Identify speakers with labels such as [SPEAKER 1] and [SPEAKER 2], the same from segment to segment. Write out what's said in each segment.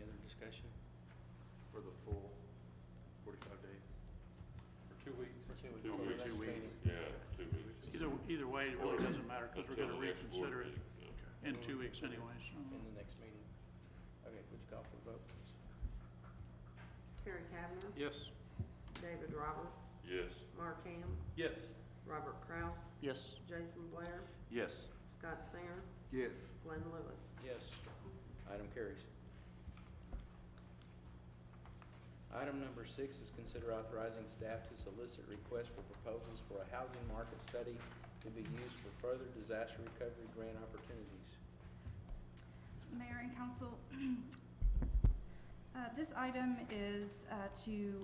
[SPEAKER 1] vacation for the full forty-five days? Or two weeks?
[SPEAKER 2] two weeks.
[SPEAKER 1] For the
[SPEAKER 3] Two weeks.
[SPEAKER 1] next
[SPEAKER 2] Two
[SPEAKER 1] meeting?
[SPEAKER 2] weeks.
[SPEAKER 3] Yeah, two weeks.
[SPEAKER 4] Either, either way, it really doesn't matter, because we're gonna
[SPEAKER 3] Until the next board
[SPEAKER 4] reconsider it
[SPEAKER 3] meeting, yeah.
[SPEAKER 4] in two weeks anyway, so.
[SPEAKER 2] In the next meeting. Okay, would you call for the vote, please?
[SPEAKER 5] Terry Kavner,
[SPEAKER 1] Yes.
[SPEAKER 5] David Roberts,
[SPEAKER 3] Yes,
[SPEAKER 5] Mark Ham,
[SPEAKER 1] Yes.
[SPEAKER 5] Robert Kraus,
[SPEAKER 6] Yes.
[SPEAKER 5] Jason Blair,
[SPEAKER 1] Yes.
[SPEAKER 5] Scott Singer,
[SPEAKER 6] Yes.
[SPEAKER 5] Glenn Lewis.
[SPEAKER 2] Yes. Item carries. Item number six is consider authorizing staff to solicit requests for proposals for a housing market study to be used for further disaster recovery grant opportunities.
[SPEAKER 7] Mayor and council, uh, this item is uh, to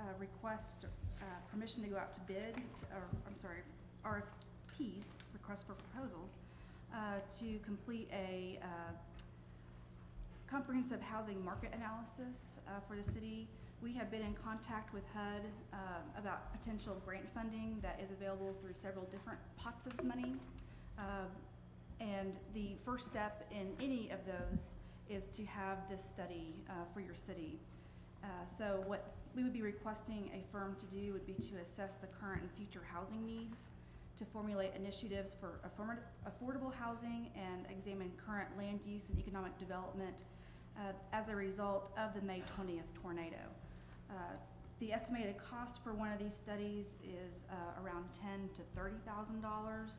[SPEAKER 7] uh, request uh, permission to go out to bids, or, I'm sorry, RFPs, request for proposals, uh, to complete a uh, comprehensive housing market analysis uh, for the city. We have been in contact with HUD um, about potential grant funding that is available through several different pots of money. Um, And the first step in any of those is to have this study uh, for your city. Uh, So what we would be requesting a firm to do would be to assess the current and future housing needs, to formulate initiatives for affirmat- affordable housing and examine current land use and economic development uh, as a result of the May 20th tornado. Uh, The estimated cost for one of these studies is uh, around ten to $30,000.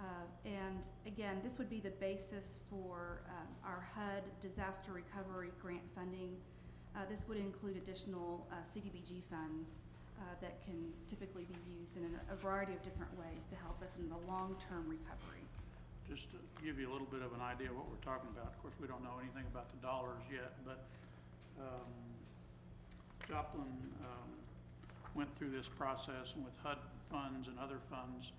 [SPEAKER 7] Uh, And again, this would be the basis for uh, our HUD disaster recovery grant funding. Uh, This would include additional uh, CDBG funds uh, that can typically be used in a variety of different ways to help us in the long-term recovery.
[SPEAKER 4] Just to give you a little bit of an idea of what we're talking about, of course, we don't know anything about the dollars yet, but um, Joplin um, went through this process and with HUD funds and other funds,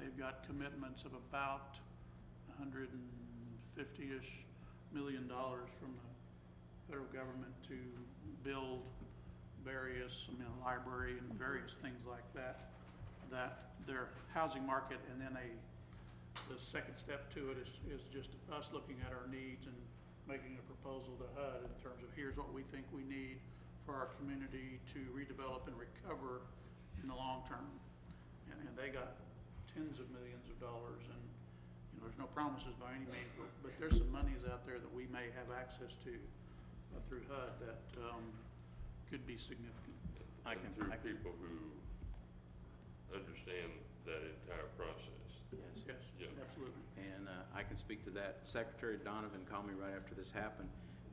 [SPEAKER 4] they've got commitments of about hundred and fifty-ish million dollars from the federal government to build various, I mean, a library and various things like that, that their housing market and then a the second step to it is, is just us looking at our needs and making a proposal to HUD in terms of here's what we think we need for our community to redevelop and recover in the long term. And, and they got tens of millions of dollars and, you know, there's no promises by any means, but, but there's some monies out there that we may have access to uh, through HUD that, um, could be significant. I
[SPEAKER 3] and
[SPEAKER 4] can-
[SPEAKER 3] through
[SPEAKER 4] I can-
[SPEAKER 3] people who understand that entire process.
[SPEAKER 8] Yes,
[SPEAKER 4] Yes,
[SPEAKER 3] Yeah.
[SPEAKER 4] absolutely.
[SPEAKER 8] and uh, I can speak to that. Secretary Donovan called me right after this happened.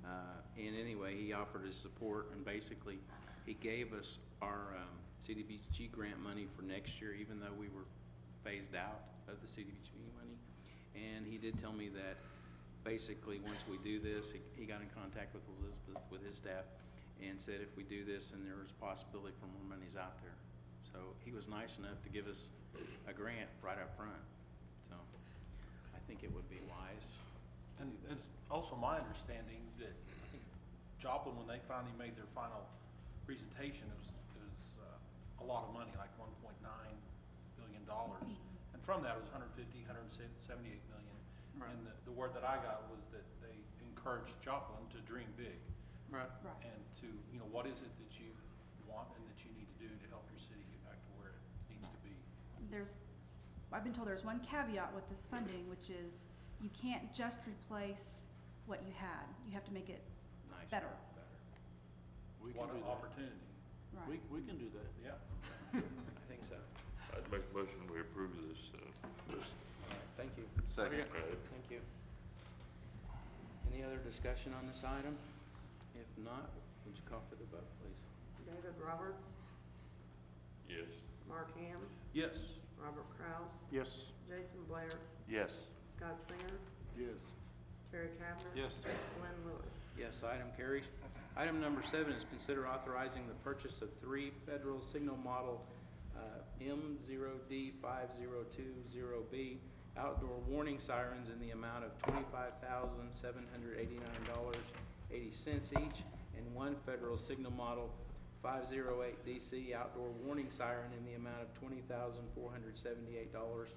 [SPEAKER 8] uh, And anyway, he offered his support and basically, he gave us our um, CDBG grant money for next year, even though we were phased out of the CDBG money. And he did tell me that basically, once we do this, he- he got in contact with Elizabeth, with his staff, and said if we do this, then there's possibility for more monies out there. So he was nice enough to give us a grant right up front, so. I think it would be wise.
[SPEAKER 9] And it's also my understanding that I think Joplin, when they finally made their final presentation, it was, it was uh, a lot of money, like one point nine billion dollars. And from that, it was 150, 178 million.
[SPEAKER 4] Right.
[SPEAKER 9] And the, the word that I got was that they encouraged Joplin to dream big
[SPEAKER 4] Right.
[SPEAKER 9] and to, you know, what is it that you want and that you need to do to help your city get back to where it needs to be?
[SPEAKER 7] there's, I've been told there's one caveat with this funding, which is you can't just replace what you had. You have to make it
[SPEAKER 8] Nice.
[SPEAKER 7] better.
[SPEAKER 4] We
[SPEAKER 9] What an opportunity,
[SPEAKER 7] Right.
[SPEAKER 4] we can do that.
[SPEAKER 9] yeah.
[SPEAKER 8] I think so. All
[SPEAKER 3] I'd make a motion we approve this, uh, list.
[SPEAKER 8] right, thank you.
[SPEAKER 1] Second.
[SPEAKER 3] All right.
[SPEAKER 2] Thank you.
[SPEAKER 8] Any other discussion on this item? If not, would you call for the vote, please?
[SPEAKER 5] David Roberts,
[SPEAKER 3] Yes,
[SPEAKER 5] Mark Ham,
[SPEAKER 9] Yes.
[SPEAKER 5] Robert Kraus,
[SPEAKER 6] Yes.
[SPEAKER 5] Jason Blair,
[SPEAKER 1] Yes.
[SPEAKER 5] Scott Singer,
[SPEAKER 6] Yes.
[SPEAKER 5] Terry Kavner.
[SPEAKER 1] Yes.
[SPEAKER 5] Glenn Lewis.
[SPEAKER 8] Yes, item carries. Item number seven is consider authorizing the purchase of three federal signal model uh, M0D5020B outdoor warning sirens in the amount of $25,789.80 each, and one federal signal model 508DC outdoor warning siren in the amount of $20,478.